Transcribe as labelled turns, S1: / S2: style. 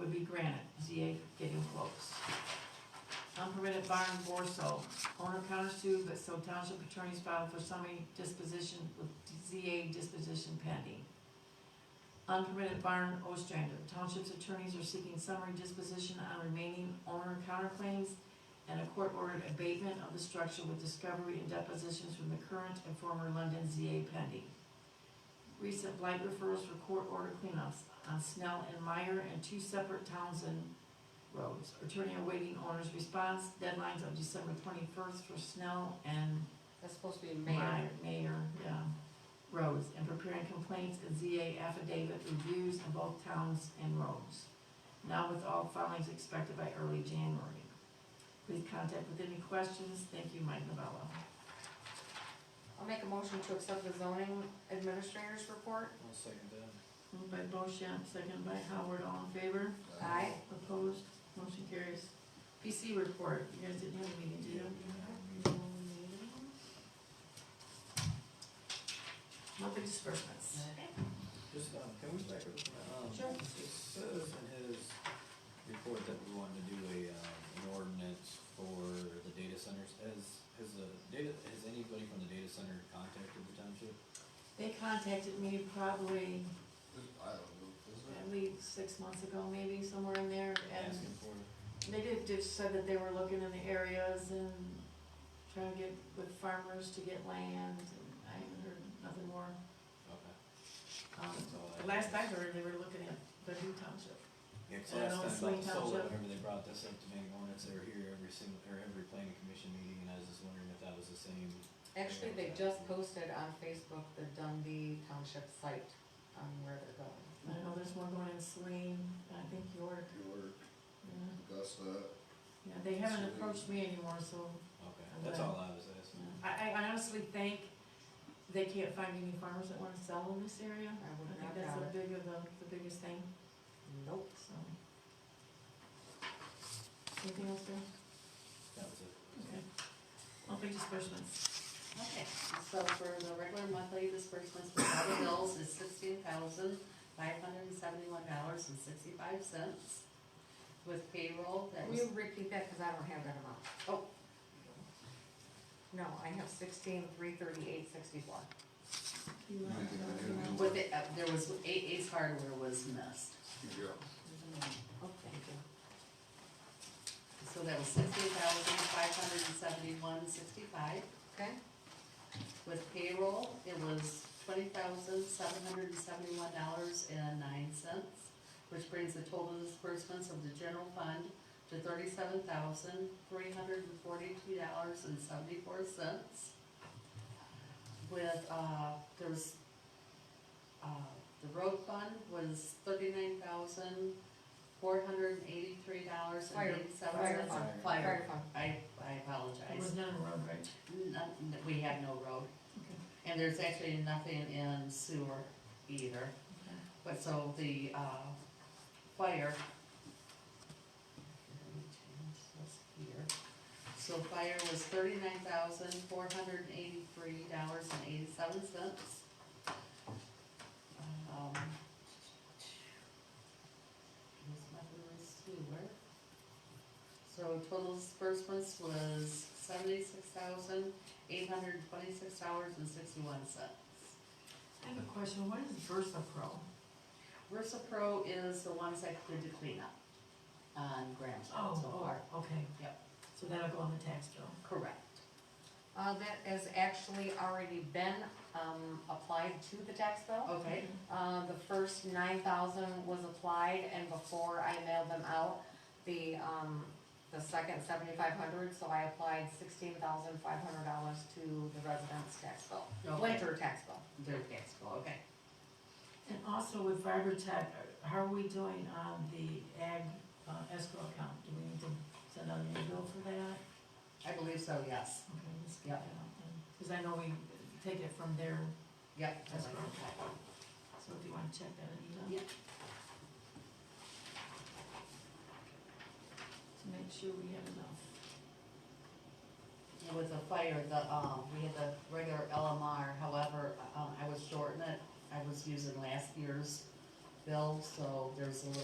S1: and Granite, ZA getting close. Unpermitted barn Borso, owner countersued, but so township attorneys filed for summary disposition with ZA disposition pending. Unpermitted barn Ostrander, township's attorneys are seeking summary disposition on remaining owner counterclaims and a court-ordered abatement of the structure with discovery and depositions from the current and former London ZA pending. Recent blight referrals for court-ordered cleanups on Snell and Meyer and two separate Townsend roads. Attorney awaiting owner's response, deadlines of December twenty-first for Snell and
S2: That's supposed to be Mayor.
S1: Meyer, Mayor, yeah, roads, and preparing complaints and ZA affidavit reviews in both towns and roads. Now with all filings expected by early January. Please contact with any questions. Thank you, Mike Novello.
S2: I'll make a motion to accept the zoning administrator's report.
S3: I'll second that.
S1: Moved by Bochamp, second by Howard, all in favor?
S3: Oh.
S2: Aye.
S1: Opposed, motion carries. PC report, you guys didn't have a meeting, did you? Monthly disbursements.
S3: Just, um, can we back up? from that? Um,
S2: Sure.
S3: It says in his report that we wanted to do a, um, an ordinance for the data centers. Has, has the data, has anybody from the data center contacted the township?
S1: They contacted me probably
S4: I don't know, is
S1: at least six months ago, maybe somewhere in there, and
S3: Asking for it?
S1: they did, just said that they were looking in the areas and trying to get with farmers to get land, and I haven't heard nothing more.
S3: Okay.
S1: Um,
S3: That's all I-
S1: the last I heard, they were looking at the new township.
S3: Yeah,
S1: I
S3: 'cause
S1: don't know,
S3: last time,
S1: Saline
S3: like, solar,
S1: Township.
S3: remember they brought this up to me, in ordinance, they were here every single, or every planning commission meeting, and I was just wondering if that was the same.
S2: Actually, they just posted on Facebook the Dundee Township site on where they're going.
S1: I know there's one going in Saline, I think York,
S4: York,
S1: yeah.
S4: Augusta,
S1: Yeah, they haven't
S4: Saline.
S1: approached me anymore, so,
S3: Okay,
S1: And
S3: that's
S1: then-
S3: all I was
S1: yeah.
S3: asking.
S1: I, I honestly think they can't find any farmers that wanna sell in this area.
S2: I
S1: I
S2: would
S1: think
S2: not
S1: that's
S2: doubt
S1: the
S2: it.
S1: big of the, the biggest thing,
S2: Nope.
S1: so. Anything else there?
S3: That was it.
S1: Okay. Monthly disbursements.
S5: Okay, so for the regular monthly disbursements for all the bills is sixteen thousand five hundred and seventy-one dollars and sixty-five cents. With payroll, that
S2: Will
S5: was,
S2: you repeat that, cause I don't have that amount?
S5: oh,
S2: No, I have sixteen, three thirty-eight, sixty-four.
S5: with it, uh, there was, A Ace Hardware was missed.
S4: yeah.
S2: Oh, thank you.
S5: So that was sixteen thousand five hundred and seventy-one sixty-five.
S2: Okay,
S5: With payroll, it was twenty thousand seven hundred and seventy-one dollars and nine cents, which brings the total disbursements of the general fund to thirty-seven thousand three hundred and forty-two dollars and seventy-four cents. With, uh, there was, uh, the road fund was thirty-nine thousand four hundred and eighty-three dollars and
S2: Fire-
S5: eighty-seven
S2: fire
S5: cents.
S3: fund.
S2: Fire fund.
S5: I, I
S1: It was
S5: apologize.
S1: none of them, right?
S5: None- we have no road. And there's actually nothing in sewer either, but so the, uh, fire. Let me change this here. So fire was thirty-nine thousand, four hundred and eighty-three dollars and eighty-seven cents. Um. Here's my little sewer. So total disbursements was seventy-six thousand, eight hundred twenty-six dollars and sixty-one cents.
S1: I have a question, what is Versa Pro?
S5: Versa Pro is the ones that did the cleanup on Graham
S1: Oh,
S5: so far.
S1: Okay.
S5: Yep.
S1: So that'll go on the tax bill.
S5: Correct.
S2: Uh, that has actually already been, um, applied to the tax bill.
S5: Okay,
S2: Uh, the first nine thousand was applied, and before I mailed them out, the, um, the second seventy-five hundred, so I applied sixteen thousand five hundred dollars to the residents' tax bill,
S5: Okay.
S2: winter tax bill.
S5: they're taxable, okay.
S1: And also with Vibertech, are- how are we doing on the ag uh, escrow account? Do we need to send out a new bill for that?
S5: I believe so, yes.
S1: Okay, let's get
S5: Yep.
S1: that out then. Cause I know we take it from there,
S5: Yep.
S1: That's correct. so if you wanna check that, Anita.
S5: Yep.
S1: To make sure we have enough.
S5: And With the fire, the, um, we had the regular LMR, however, um, I was shorting it. I was using last year's bill, so there's a little